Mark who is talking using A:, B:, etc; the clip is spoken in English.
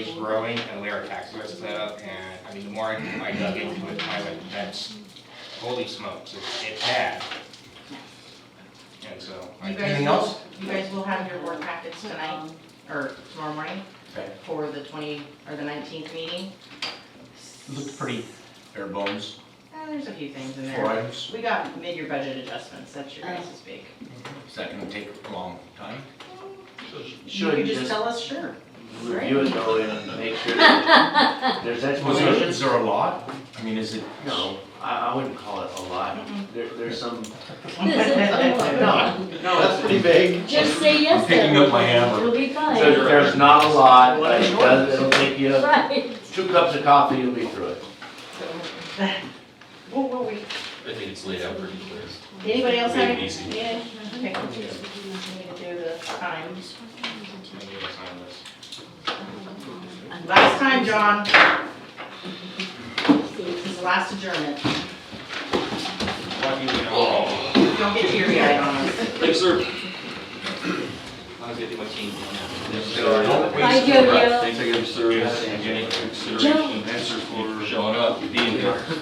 A: is growing and where our tax rates set up, and, I mean, the more I dug into it, I went, that's, holy smokes, it's, it's bad. And so, I
B: You guys
C: Anything
B: will-
C: else?
B: You guys will have your board packets tonight, or tomorrow morning,
C: Okay.
B: for the twenty, or the nineteenth meeting.
C: Looked pretty bare bones,
B: Uh, there's a few things in
C: four
B: there.
C: items,
B: We got mid-year budget adjustments, that's your guys' big.
C: is that gonna take a long time?
B: You
D: Should
B: could
D: just
B: just tell us, sure.
D: review it though and make sure that
C: Was
D: there's
C: there, is
D: explanations.
C: there a lot? I mean, is it?
D: No, I, I wouldn't call it a lot. There, there's some, no, no, that's pretty big.
E: Just say yes to
C: Picking up my hammer.
E: everything. It'll be fine.
D: There's, there's not a lot, but it does, it'll take you
E: Right.
D: two cups of coffee, you'll be through it.
B: Whoa, whoa, wait.
F: I think it's laid out pretty clear.
B: Anybody else have?
F: Make it easy.
B: Yeah, okay. I'm gonna do the times.
A: I need to sign this.
B: Last time, John. This is the last adjournment.
A: Lucky we don't,
B: Don't get teary-eyed on us.
F: Thanks, sir.
A: I was gonna do my team.
F: Don't
E: Hi,
F: waste your
E: Yo-Yo.
F: breath. Thanks again, sir. And any consideration, answer for showing up, being here.